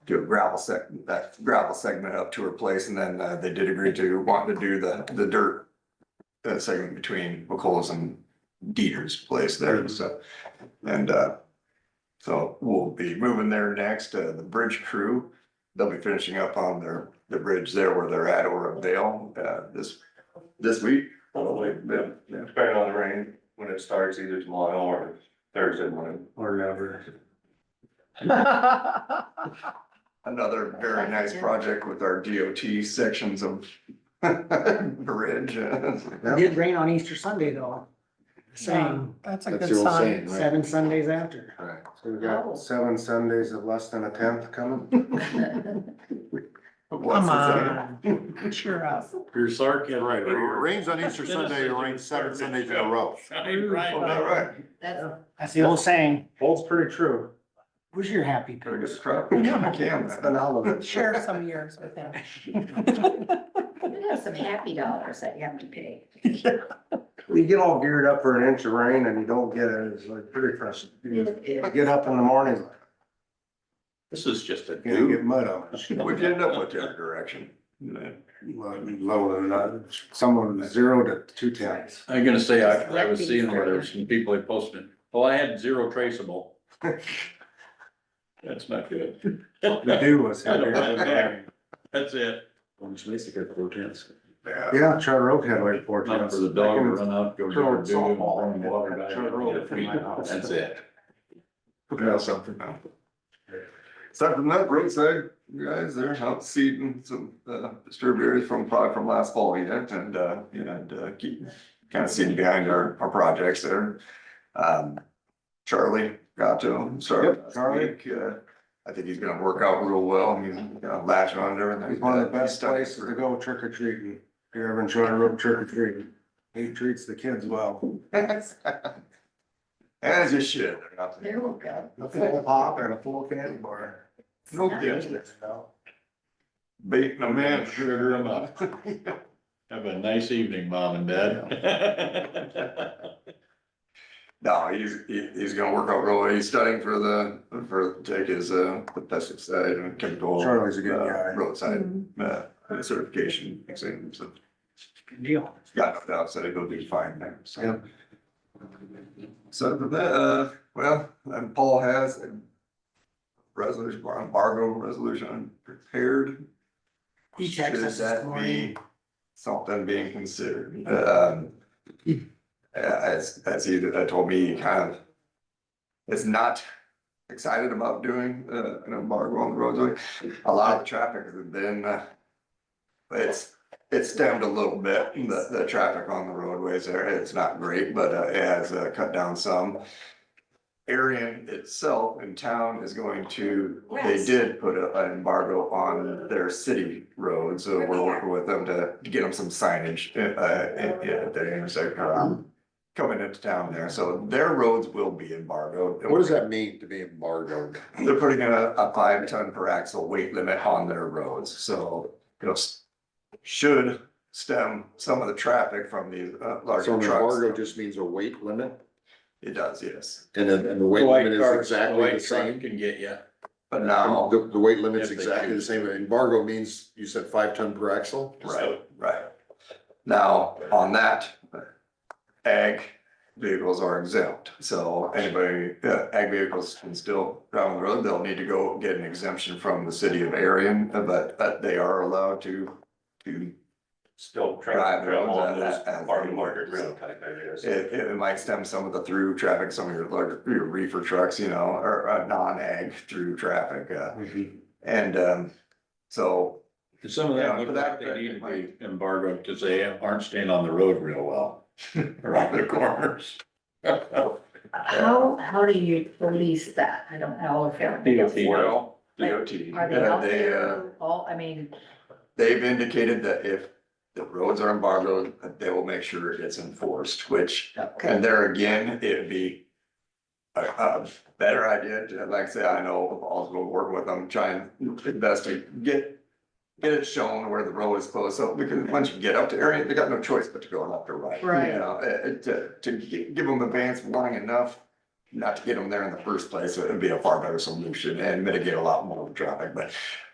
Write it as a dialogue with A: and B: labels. A: do a gravel sec, that gravel segment up to her place, and then uh, they did agree to want to do the, the dirt uh, segment between McColl's and Dieter's place there, so, and, uh, so we'll be moving there next, uh, the bridge crew, they'll be finishing up on their, the bridge there where they're at, or up Dale, uh, this, this week.
B: Probably,
A: Yeah,
B: yeah.
A: yeah.
B: depending on the rain, when it starts either tomorrow or Thursday morning.
C: Or never.
A: Another very nice project with our DOT sections of bridge. uh,
D: It did rain on Easter Sunday though. Same,
E: That's a
C: That's
E: good
C: the old
E: sign. Oh.
C: saying, right?
D: seven Sundays after.
A: Right.
C: So we got seven Sundays of less than a tenth coming.
A: But what's
E: Come
A: the
E: on, cheer up.
F: Your sarcasm, right, rains on Easter
B: Sunday, it rains seven Sundays in a row.
A: second? Oh, all right.
D: Yeah, That's the old saying,
C: Holds pretty true.
D: who's your happy
A: Gotta
D: pig?
A: get scrapped. Yeah,
E: Share some years with him.
G: You have some happy dollars that you have to pay.
C: You get all geared up for an inch of rain and you don't get it, it's like pretty frustrating. You just Get up in the morning,
B: This is just a
C: you get mud on it.
A: What'd you end up with the other direction?
C: Well, Low than that, someone zero to two tenths.
F: I'm gonna say, I, I was seeing where there were some people that posted, well, I had zero traceable. That's not good.
C: The dew was
F: I don't have
C: heavier.
F: that. That's it. Which makes it good for tense.
A: Yeah.
C: Yeah, Charter Oak had like four
F: Not
C: tenths.
F: for the dog to run out, go
C: throw
F: to
C: it
F: the and
C: softball
F: bring water
C: and throw it
F: back.
C: over my house.
F: That's it.
A: Yeah, something now. Aside from that, roadside, you guys, they're out seeding some, uh, strawberries from, probably from last fall yet, and, uh, you know, and, uh, keep kind of seeding behind our, our projects there. Um, Charlie got to him, sorry.
C: Yep, Charlie.
A: uh, I think he's gonna work out real well, he's gonna latch on to everything.
C: It's one of the
A: He's
C: best
A: stuck
C: places to
A: for-
C: go trick or treating, if you're ever in Charter Oak trick or treating. He treats the kids well.
A: As you should. they're not-
G: There we go.
C: A full pop and a full candy bar.
A: No kidding. Beating a man.
F: Sugar 'em up. Have a nice evening, mom and dad.
A: No, he's, he, he's gonna work out really, he's studying for the, for, take his, uh, the pesticide and chemical.
C: Charlie's a good
A: uh,
C: guy.
A: Roadside, uh, certification exam, so,
D: Good Deal.
A: got no doubt, so he'll be fine there, so.
C: Yep.
A: So for that, uh, well, and Paul has a resolution, embargo resolution prepared.
D: He texted us
A: Should
D: this
A: that
D: morning.
A: be Something being considered, um. As, as he, that told me, he kind of. Is not excited about doing, uh, an embargo on the roadway, a lot of the traffic has been, uh. It's, it stemmed a little bit, the, the traffic on the roadways there, it's not great, but uh, it has uh, cut down some. Arian itself in town is going to, they
G: Yes.
A: did put a- an embargo on their city roads, so we're working with them to to get them some signage, uh, at, at their intersection. um, Coming into town there, so their roads will be embargoed.
F: does that mean to be embargoed?
A: They're putting a, a five ton per axle weight limit on their roads, so it'll, s- should stem some of the traffic from these uh, larger trucks.
F: just means a weight limit?
A: It does, yes,
F: And then, and the weight limit is exactly the same? Can get you.
A: but now,
H: The, the weight limit's
F: If they
H: exactly the
F: choose.
H: same, embargo means, you said five ton per axle?
A: right, right. Now, on that, ag vehicles are exempt, so anybody, uh, ag vehicles can still drive on the road, they'll need to go get an exemption from the city of Arion, but, but they are allowed to, to
B: Still
A: Drive
B: trying to travel on
A: roads,
B: those
A: uh, uh,
B: farm
A: uh,
B: market road
A: so-
B: type areas.
A: It, it might stem some of the through traffic, some of your larger, your reefer trucks, you know, or, uh non-ag through traffic, uh, and, um, so.
F: And Some of that
A: Yeah,
F: look
A: for that
F: like they
A: effect,
F: need
A: it
F: to be embargoed because they aren't staying on the road real well around the corners.
G: How, how do you police that? I don't know if they're.
A: Well,
G: Like,
A: DOT,
G: Are they
A: yeah,
G: out
A: they, uh,
G: there? All, I mean,
A: they've indicated that if the roads are embargoed, that they will make sure it's enforced, which,
G: okay,
A: and there again, it'd be a, a better idea, to like I say, I know, I'll go work with them, try and investigate, get, get it shown where the road is closed, so, because once you get up to area, they got no choice but to go left or right. You
G: Right.
A: know, uh, uh, to, to gi- give them advance warning enough not to get them there in the first place, it would be a far better solution and mitigate a lot more of the traffic, but